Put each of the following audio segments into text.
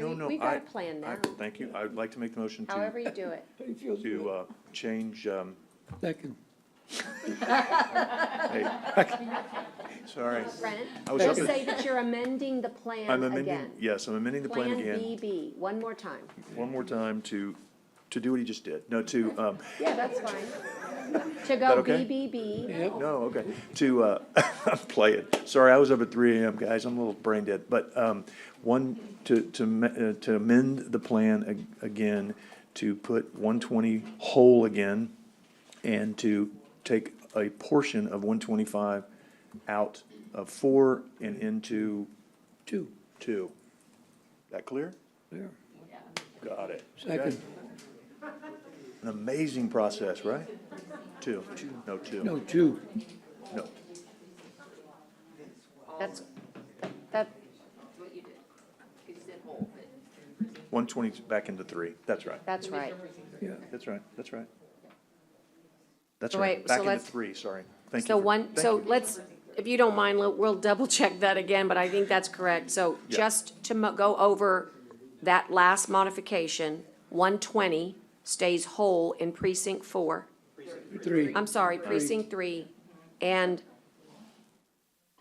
no, We've I- got a plan I- now, Thank you. I would like to make the motion to, however you do it. He feels to, good. uh, change, um, Second. hey, sorry. Brent, I was just up- say that you're amending the plan I'm amending, again. yes, I'm amending the plan again, Plan BB, one more time. one more time to, to do what he just did. No, to, um, Yeah, that's fine. To that go okay? BBB, Yep. No, okay, to, uh, play it. Sorry, I was up at three AM, guys, I'm a little brain dead, but, um, one, to, to, ma- uh, to amend the plan a- again, to put one twenty whole again, and to take a portion of one twenty-five out of four and into Two, two. That clear? there, Got it. second, An amazing process, right? Two, no, two, no, no. two, that's, that, One twenty back into three, that's right. that's right. yeah. That's right, that's right. That's So right, wait, so back into let's- three, sorry. Thank you. So for- one, thank so you. let's, if you don't mind, we'll- we'll double check that again, but I think that's correct. So Yeah. just to mo- go over that last modification, one twenty stays whole in precinct four. Three, I'm sorry, precinct three, and,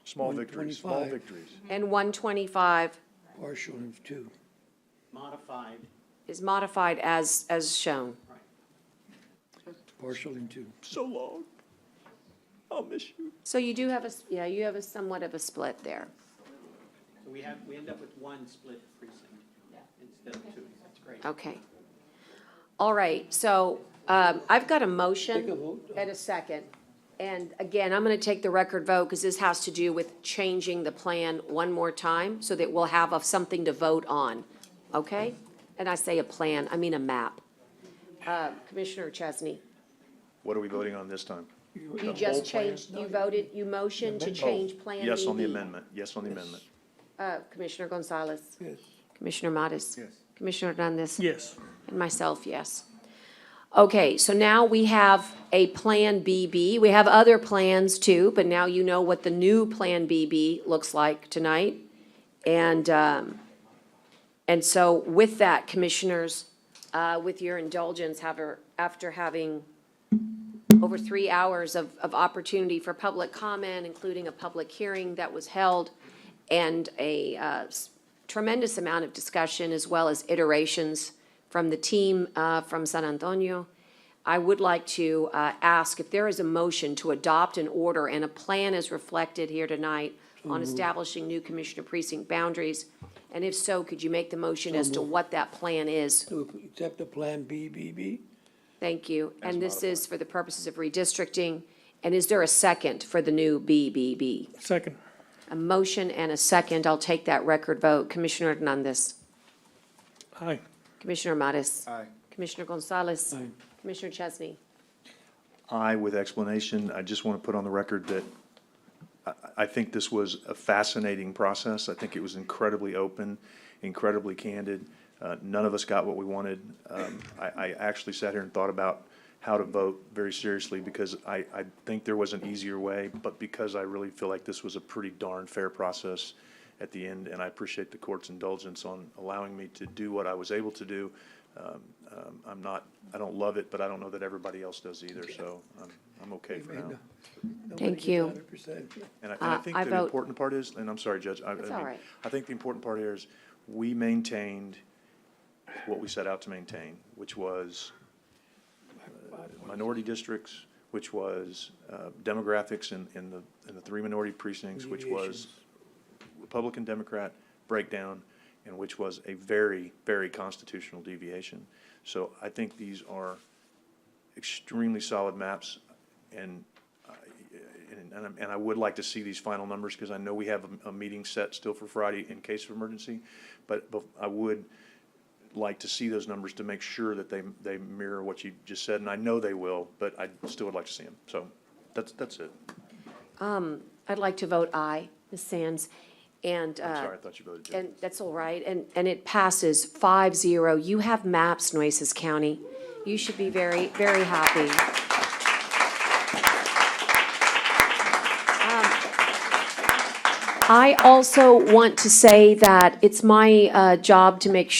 Small victories, small 125. victories. and one twenty-five partial of two. modified, is modified as, as shown. Partial in two. So long. I'll miss you. So you do have a, s- yeah, you have a somewhat of a split there. so we have, we end up with one split precinct instead of two. That's great. Okay. All right, so um, I've got a motion. Take a vote. And a second. And again, I'm going to take the record vote because this has to do with changing the plan one more time so that we'll have a- something to vote on, okay? And I say a plan, I mean a map. Uh, Commissioner Chesney, What are we voting on this time? you just changed, you voted, you motioned to change Plan Oh, Yes on the BB. amendment, yes on the amendment. Uh, Commissioner Gonzalez, Yes. Commissioner Modis. Yes. Commissioner Hernandez. Yes. And myself, yes. Okay, so now we have a Plan BB. We have other plans too, but now you know what the new Plan BB looks like tonight. And, um, and so with that, commissioners, uh, with your indulgence, however, after having over three hours of, of opportunity for public comment, including a public hearing that was held, and a uh, s- tremendous amount of discussion, as well as iterations from the team uh, from San Antonio. I would like to uh, ask if there is a motion to adopt an order and a plan as reflected here tonight on establishing new commissioner precinct boundaries, and if so, could you make the motion as to what that plan is To accept the Plan BBB? Thank you. And this is for the purposes of redistricting. And is there a second for the new BBB? Second. A motion and a second. I'll take that record vote. Commissioner Hernandez. Aye. Commissioner Mattis. Aye. Commissioner Gonzalez. Aye. Commissioner Chesney. I, with explanation, I just want to put on the record that I, I think this was a fascinating process. I think it was incredibly open, incredibly candid. Uh, none of us got what we wanted. Um, I, I actually sat here and thought about how to vote very seriously because I, I think there was an easier way, but because I really feel like this was a pretty darn fair process at the end, and I appreciate the court's indulgence on allowing me to do what I was able to do. Um, um, I'm not, I don't love it, but I don't know that everybody else does either, so I'm, I'm okay for now. Thank you. Hundred percent. And I, and I Uh, think I the vote- important part is, and I'm sorry, Judge, I, I That's all mean, right. I think the important part here is we maintained what we set out to maintain, which was uh, minority districts, which was uh, demographics in, in the, in the three minority precincts, which was Republican, Democrat breakdown, and which was a very, very constitutional deviation. So I think these are extremely solid maps, and, I- and, and I'm- and I would like to see these final numbers, because I know we have a, a meeting set still for Friday in case of emergency, but, but I would like to see those numbers to make sure that they, they mirror what you just said, and I know they will, but I still would like to see them. So that's, that's it. I'd like to vote aye, Ms. Sands. And, I'm uh, sorry, I thought you voted Jim. and that's all right. And, and it passes five zero. You have maps, Nueces County. You should be very, very happy. Um, I also want to say that it's my uh, job to make sure.